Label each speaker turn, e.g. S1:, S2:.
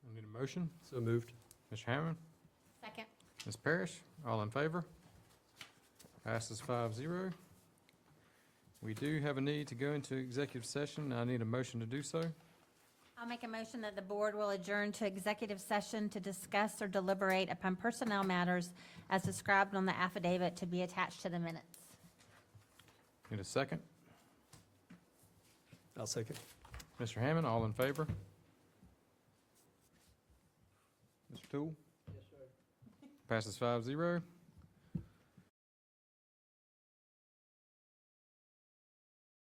S1: motion?
S2: So moved.
S1: Mr. Hammond?
S3: Second.
S1: Ms. Parrish? All in favor? Passes five zero. We do have a need to go into executive session. I need a motion to do so.
S3: I'll make a motion that the board will adjourn to executive session to discuss or deliberate upon personnel matters as described on the affidavit to be attached to the minutes.
S1: Need a second?
S2: I'll second.
S1: Mr. Hammond, all in favor? Mr. Tool? Yes, sir. Passes five zero.